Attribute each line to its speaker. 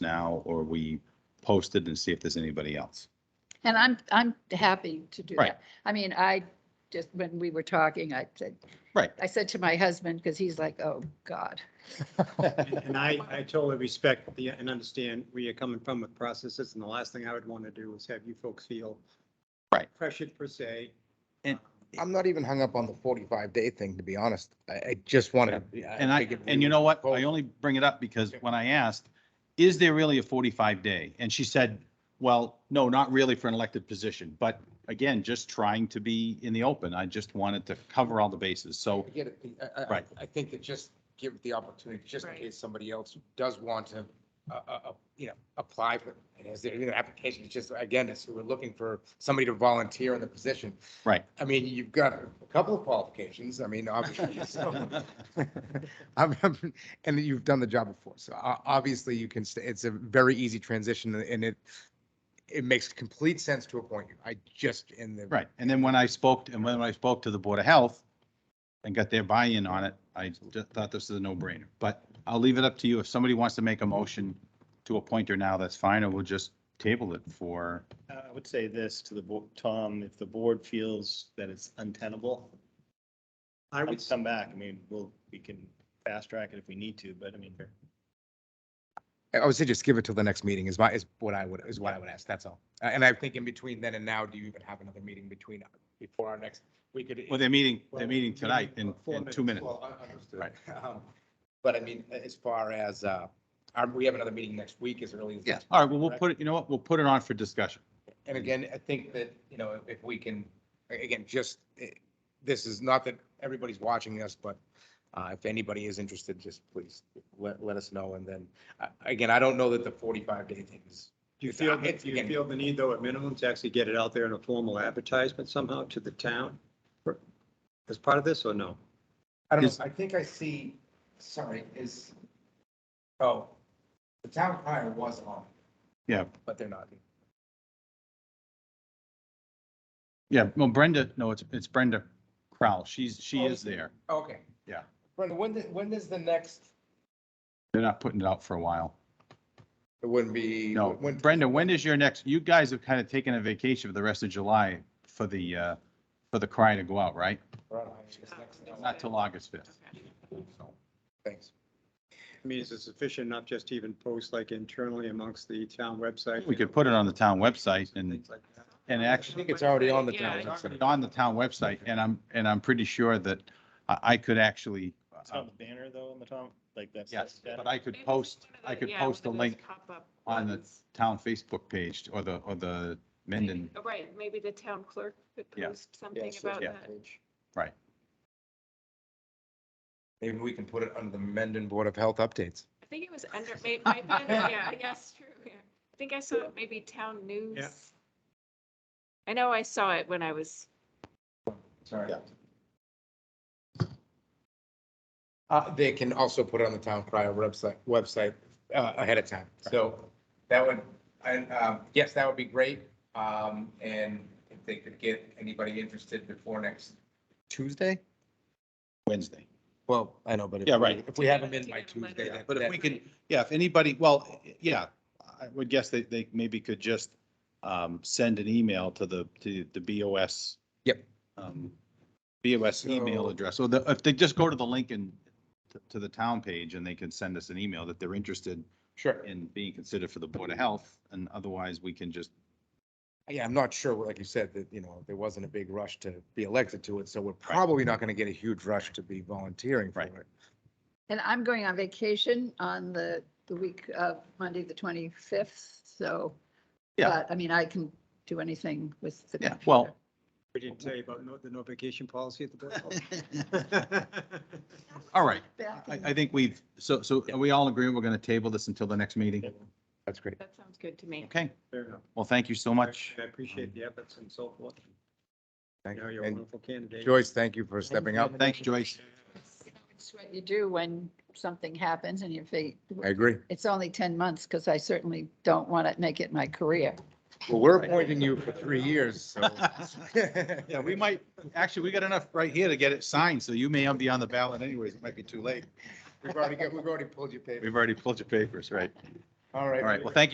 Speaker 1: now or we post it and see if there's anybody else.
Speaker 2: And I'm, I'm happy to do
Speaker 1: Right.
Speaker 2: that. I mean, I just, when we were talking, I said,
Speaker 1: Right.
Speaker 2: I said to my husband, because he's like, oh, God.
Speaker 3: And and I, I totally respect the, and understand where you're coming from with processes, and the last thing I would want to do is have you folks feel
Speaker 1: Right.
Speaker 3: pressured per se.
Speaker 1: And-
Speaker 4: I'm not even hung up on the forty-five day thing, to be honest. I, I just uh, wanted.
Speaker 1: And I, and you know what? I only bring it up because when I asked, is there really a forty-five day? And she said, well, no, not really for an elected position, but again, just trying to be in the open. I just wanted to cover all the bases. So,
Speaker 4: I get it. I- I, I,
Speaker 1: Right.
Speaker 4: I think that just give the opportunity, just in
Speaker 5: Right.
Speaker 4: case somebody else does want to, uh, uh, uh, you know, apply for, and as their you know, application, it's just, again, it's, we're looking for somebody to volunteer in the position.
Speaker 1: Right.
Speaker 4: I mean, you've got a couple of qualifications. I mean, obviously. so- I'm, I'm- and you've done the job before. So o- obviously you can, stay it's a very easy transition and it, it makes complete sense to appoint you. I just, in the.
Speaker 1: right. And then when I spoke, and when I spoke to the Board of Health and got their buy-in on it, I just thought this is a no-brainer. But I'll leave it up to you. If somebody wants to make a motion to appoint her now, that's fine, or we'll just table it for,
Speaker 6: Uh, I would say this to the, bo- Tom, if the board feels that it's untenable,
Speaker 3: I
Speaker 6: I
Speaker 3: would,
Speaker 6: would come back. I mean, we'll, we can fast track it if we need to, but I mean,
Speaker 4: I would say just give it till the next meeting is my, is what I would, is what I would ask. That's all. Uh, And I think in between then and now, do you even have another meeting between, before our next, we could.
Speaker 1: well, they're meeting, they're meeting tonight in, in two minutes.
Speaker 4: Well, I- I understood. Um, But I mean, a- as far as, uh, our- we have another meeting next week as early as.
Speaker 1: Yeah,
Speaker 4: next-
Speaker 1: all right, well, we'll put it, you know what, we'll put it on for discussion.
Speaker 4: And again, I think that, you know, if- if we can, a- again, just, eh, this is not that everybody's watching us, but uh, if anybody is interested, just please let, let us know. And then, uh, again, I don't know that the 45 day thing is
Speaker 3: do you feel,
Speaker 4: It's-
Speaker 3: do you
Speaker 4: again-
Speaker 3: feel the need though at minimum to actually get it out there in a formal advertisement somehow to the town? for- As part of this or no?
Speaker 4: I don't
Speaker 1: Is-
Speaker 4: know, I think I see, sorry, is, oh, the town crier was on.
Speaker 1: Yeah.
Speaker 4: But they're not.
Speaker 1: Yeah, well, Brenda, no, it's, it's Brenda Crowell. She's, Oh, she is there.
Speaker 4: Okay.
Speaker 1: Yeah.
Speaker 4: Brenda, when, the- when is the next?
Speaker 1: They're not putting it out for a while.
Speaker 4: It wouldn't be.
Speaker 1: No,
Speaker 4: when-
Speaker 1: Brenda, when is your next, you guys have kind of taken a vacation for the rest of July for the, uh, for the cry to go out, right? Not till August 5th. So,
Speaker 4: Thanks.
Speaker 3: I mean, is it sufficient enough just to even post like internally amongst the town website?
Speaker 1: We could put it on the town website and,
Speaker 3: Things like that.
Speaker 1: and
Speaker 4: I
Speaker 1: actually
Speaker 4: think it's already on the
Speaker 5: Yeah.
Speaker 4: town.
Speaker 1: it's
Speaker 4: website.
Speaker 1: on the town website and I'm, and I'm pretty sure that I, I could actually, uh,
Speaker 6: it's on the banner though, on the top, like that's.
Speaker 1: yes,
Speaker 6: that-
Speaker 1: but I could post, I could post a link on the town Facebook page or the, or the Mendon.
Speaker 5: Oh, Right, maybe the town clerk could
Speaker 1: Yeah.
Speaker 5: post
Speaker 4: Yeah,
Speaker 5: something
Speaker 4: so
Speaker 5: about
Speaker 1: yeah.
Speaker 5: that.
Speaker 4: Maybe we can put it under the Mendon Board of Health updates.
Speaker 5: I think it was under, may- might be under- yeah, yes, true. yeah. I think I saw it maybe town news. I know I saw it when I was,
Speaker 4: Sorry. Uh, they can also put it on the town crier website, website, uh, ahead of time. So that would, and, um, yes, that would be great. Um, and if they could get anybody interested before next Tuesday?
Speaker 1: Wednesday.
Speaker 4: Well, I know, but. if
Speaker 1: Yeah,
Speaker 4: we-
Speaker 1: right.
Speaker 4: If we haven't been by
Speaker 5: To get a
Speaker 4: Tuesday.
Speaker 5: letter.
Speaker 4: that-
Speaker 1: But if
Speaker 4: that-
Speaker 1: we can, yeah, if anybody, well, yeah, I would guess they, they maybe could just um, send an email to the, to the BOS.
Speaker 4: Yep.
Speaker 1: um, BOS email
Speaker 4: So-
Speaker 1: address. So the, if they just go to the link and t- to the town page and they can send us an email that they're interested
Speaker 4: Sure.
Speaker 1: in being considered for the Board of Health. And otherwise we can just,
Speaker 4: Yeah, I'm not sure, like you said, that, you know, there wasn't a big rush to be elected to it, so we're probably not gonna get a huge rush to be volunteering for
Speaker 1: Right.
Speaker 4: it.
Speaker 2: And I'm going on vacation on the, the week of Monday, the 25th, so.
Speaker 1: Yeah.
Speaker 2: But, I mean, I can do anything with. the
Speaker 1: yeah, well,
Speaker 3: We didn't tell you about no- the no vacation policy at the board.
Speaker 1: all right.
Speaker 2: Back
Speaker 1: I,
Speaker 2: in-
Speaker 1: I think we've, so, so are we all agreeing we're going to table this until the next meeting?
Speaker 4: That's great.
Speaker 5: that sounds good to me.
Speaker 1: Okay,
Speaker 3: Fair enough.
Speaker 1: well, thank you so much.
Speaker 3: I appreciate the efforts and so forth.
Speaker 4: Thank
Speaker 3: You know,
Speaker 4: you.
Speaker 3: you're a
Speaker 4: And
Speaker 3: wonderful candidate.
Speaker 4: Joyce, thank you for stepping up.
Speaker 1: Thanks, Joyce.
Speaker 2: It's what you do when something happens and you think,
Speaker 4: I agree.
Speaker 2: it's only 10 months, because I certainly don't want to make it my career.
Speaker 4: Well, we're appointing you for three years, so.
Speaker 1: Yeah, we might, actually, we got enough right here to get it signed, so you may be on the ballot anyways. It might be too late.
Speaker 4: We've already got, we've already pulled your paper.
Speaker 1: We've already pulled your papers, right?
Speaker 4: All right.
Speaker 1: All right, well, thank you.